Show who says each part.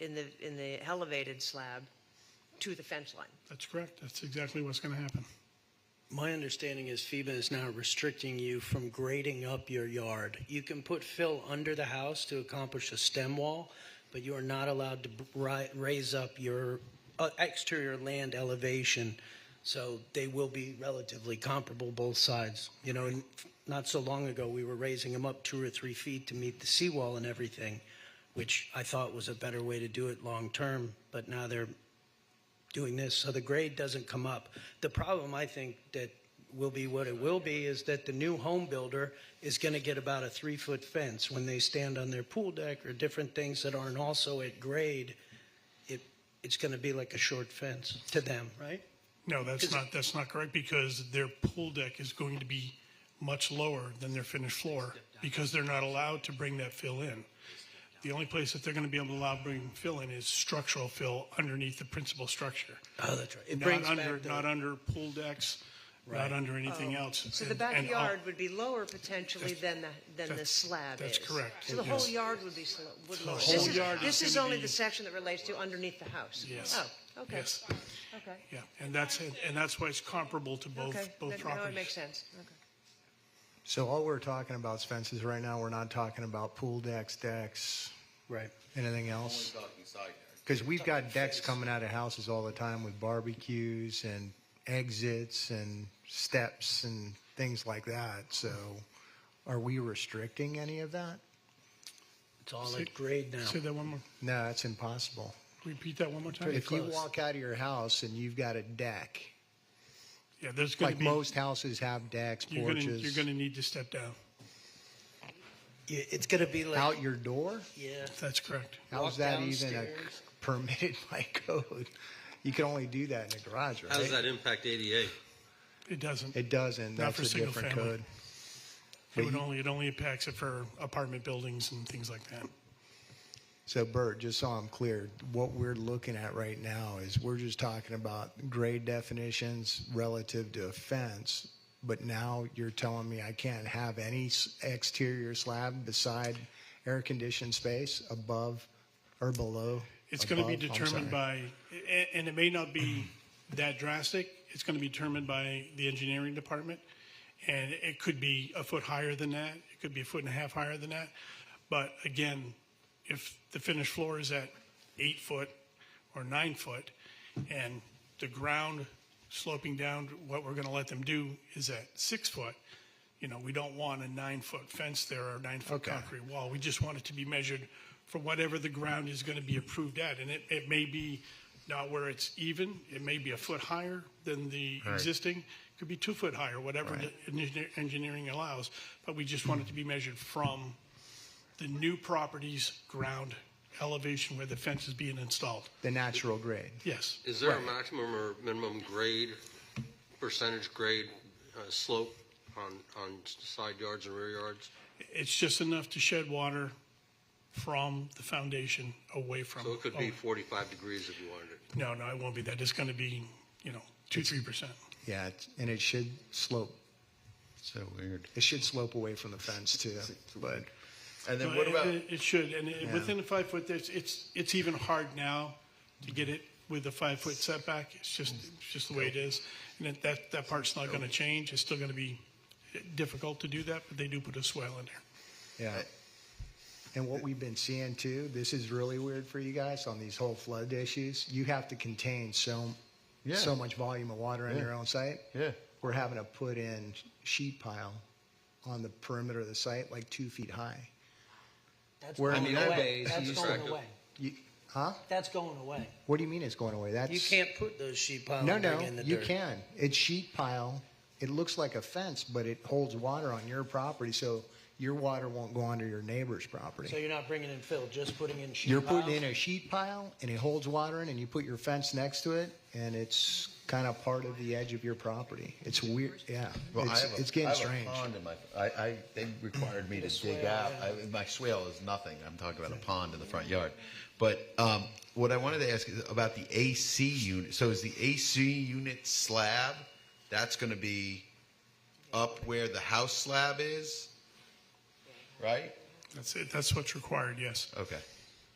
Speaker 1: in the, in the elevated slab to the fence line.
Speaker 2: That's correct. That's exactly what's going to happen.
Speaker 3: My understanding is FEMA is now restricting you from grading up your yard. You can put fill under the house to accomplish a stem wall, but you are not allowed to b- ri- raise up your uh, exterior land elevation. So they will be relatively comparable both sides. You know, and not so long ago, we were raising them up two or three feet to meet the seawall and everything, which I thought was a better way to do it long term, but now they're doing this, so the grade doesn't come up. The problem, I think, that will be what it will be is that the new home builder is going to get about a three foot fence when they stand on their pool deck or different things that aren't also at grade. It, it's going to be like a short fence to them, right?
Speaker 2: No, that's not, that's not correct because their pool deck is going to be much lower than their finished floor because they're not allowed to bring that fill in. The only place that they're going to be able to allow bring fill in is structural fill underneath the principal structure.
Speaker 3: Oh, that's right. It
Speaker 2: Not
Speaker 3: brings
Speaker 2: under,
Speaker 3: back the,
Speaker 2: not under pool decks, not under anything else.
Speaker 1: Oh. So the
Speaker 2: And- and all-
Speaker 1: backyard would be lower potentially than the, than the
Speaker 2: that's-
Speaker 1: slab is.
Speaker 2: that's correct.
Speaker 1: So the whole
Speaker 2: Yes.
Speaker 1: yard would be, sl- would lower.
Speaker 2: whole
Speaker 1: This is,
Speaker 2: yard is
Speaker 1: this is
Speaker 2: gonna
Speaker 1: only
Speaker 2: be-
Speaker 1: the section that relates to underneath the house?
Speaker 2: Yes.
Speaker 1: Oh, okay,
Speaker 2: Yes,
Speaker 1: okay.
Speaker 2: yeah, and that's, it. and that's why it's comparable to both,
Speaker 1: Okay,
Speaker 2: both
Speaker 1: That- no, it makes
Speaker 2: properties.
Speaker 1: sense, okay.
Speaker 4: So all we're talking about is fences right now. We're not talking about pool decks, decks,
Speaker 3: right.
Speaker 4: anything else. Because we've got decks coming out of houses all the time with barbecues and exits and steps and things like that. So are we restricting any of that?
Speaker 3: It's all at grade now.
Speaker 2: Say that one more,
Speaker 4: No, it's impossible.
Speaker 2: repeat that one more time.
Speaker 4: If you
Speaker 3: close.
Speaker 4: walk out of your house and you've got a deck,
Speaker 2: Yeah, there's going to
Speaker 4: like
Speaker 2: be,
Speaker 4: most houses have decks,
Speaker 2: you're going to, you're
Speaker 4: porches,
Speaker 2: going to need to step down.
Speaker 3: Yeah, It's going to be like,
Speaker 4: out your door?
Speaker 3: yeah.
Speaker 2: That's correct.
Speaker 3: Walk
Speaker 4: How's that even a
Speaker 3: downstairs.
Speaker 4: permitted by code? You can only do that in a garage,
Speaker 5: How does
Speaker 4: right?
Speaker 5: that impact ADA?
Speaker 2: It doesn't.
Speaker 4: It doesn't.
Speaker 2: Not
Speaker 4: That's
Speaker 2: for
Speaker 4: a
Speaker 2: single
Speaker 4: different
Speaker 2: family.
Speaker 4: code.
Speaker 2: It would only, it only impacts it for apartment buildings and things like that.
Speaker 4: So Bert, just so I'm clear, what we're looking at right now is we're just talking about grade definitions relative to a fence. But now you're telling me I can't have any s- exterior slab beside air-conditioned space above or below?
Speaker 2: It's going to be
Speaker 4: Above, I'm
Speaker 2: determined
Speaker 4: sorry.
Speaker 2: by, a- and it may not be that drastic. It's going to be determined by the engineering department. And it could be a foot higher than that. It could be a foot and a half higher than that. But again, if the finished floor is at eight foot or nine foot and the ground sloping down, what we're going to let them do is at six foot. You know, we don't want a nine foot fence there or nine foot
Speaker 4: Okay.
Speaker 2: concrete wall. We just want it to be measured for whatever the ground is going to be approved at. And it, it may be not where it's even, it may be a foot higher than the existing, could be two foot higher, whatever the engineer- engineering allows. But we just want it to be measured from the new property's ground elevation where the fence is being installed.
Speaker 4: The natural grade.
Speaker 2: Yes,
Speaker 5: Is there a maximum or minimum grade, percentage grade, uh, slope on, on side yards and rear yards?
Speaker 2: it's just enough to shed water from the foundation away from. Oh,
Speaker 5: So it could be 45 degrees if you wanted it.
Speaker 2: No, no, it won't be that. It's going to be, you know, two, three percent.
Speaker 4: Yeah, it's- and it should slope,
Speaker 6: So weird.
Speaker 4: it should slope away from the fence too, but.
Speaker 6: And then
Speaker 2: No,
Speaker 6: what
Speaker 2: it-
Speaker 6: about
Speaker 2: It it should, and it- within the five foot, it's, it's, it's even hard now to get it with the five foot setback. It's just, it's just the way it is. And that- that, that part's not going to change. It's still going to be difficult to do that, but they do put a swale in there.
Speaker 4: Yeah. And what we've been seeing too, this is really weird for you guys on these whole flood issues. You have to contain so,
Speaker 6: Yeah.
Speaker 4: so much volume of water on
Speaker 6: Yeah.
Speaker 4: your own site.
Speaker 6: Yeah.
Speaker 4: We're having to put in sheet pile on the perimeter of the site, like two feet high.
Speaker 3: That's
Speaker 4: Where
Speaker 3: going
Speaker 4: in the old
Speaker 3: away.
Speaker 4: days,
Speaker 3: That's
Speaker 4: you
Speaker 5: used to-
Speaker 3: going away.
Speaker 4: You, huh?
Speaker 3: That's going away.
Speaker 4: What do you mean it's going away? That's
Speaker 3: You can't put those sheep piles
Speaker 4: No, no,
Speaker 3: in the
Speaker 4: you
Speaker 3: dirt.
Speaker 4: can. It's sheet pile. It looks like a fence, but it holds water on your property, so your water won't go onto your neighbor's property.
Speaker 3: So you're not bringing in fill, just putting in sheet
Speaker 4: You're
Speaker 3: piles?
Speaker 4: putting in a sheet pile and it holds water in and you put your fence next to it and it's kind of part of the edge of your property. It's weird, yeah.
Speaker 6: Well,
Speaker 4: it's,
Speaker 6: I have a,
Speaker 4: it's getting
Speaker 6: I have
Speaker 4: strange.
Speaker 6: a pond in my. I, I they required me to dig
Speaker 3: swale,
Speaker 6: out.
Speaker 3: yeah.
Speaker 6: I, my swale is nothing. I'm talking about a pond in the front yard. But um, what I wanted to ask is about the AC unit. So is the AC unit slab? That's going to be up where the house slab is, right?
Speaker 2: That's it. That's what's required, yes.
Speaker 6: Okay.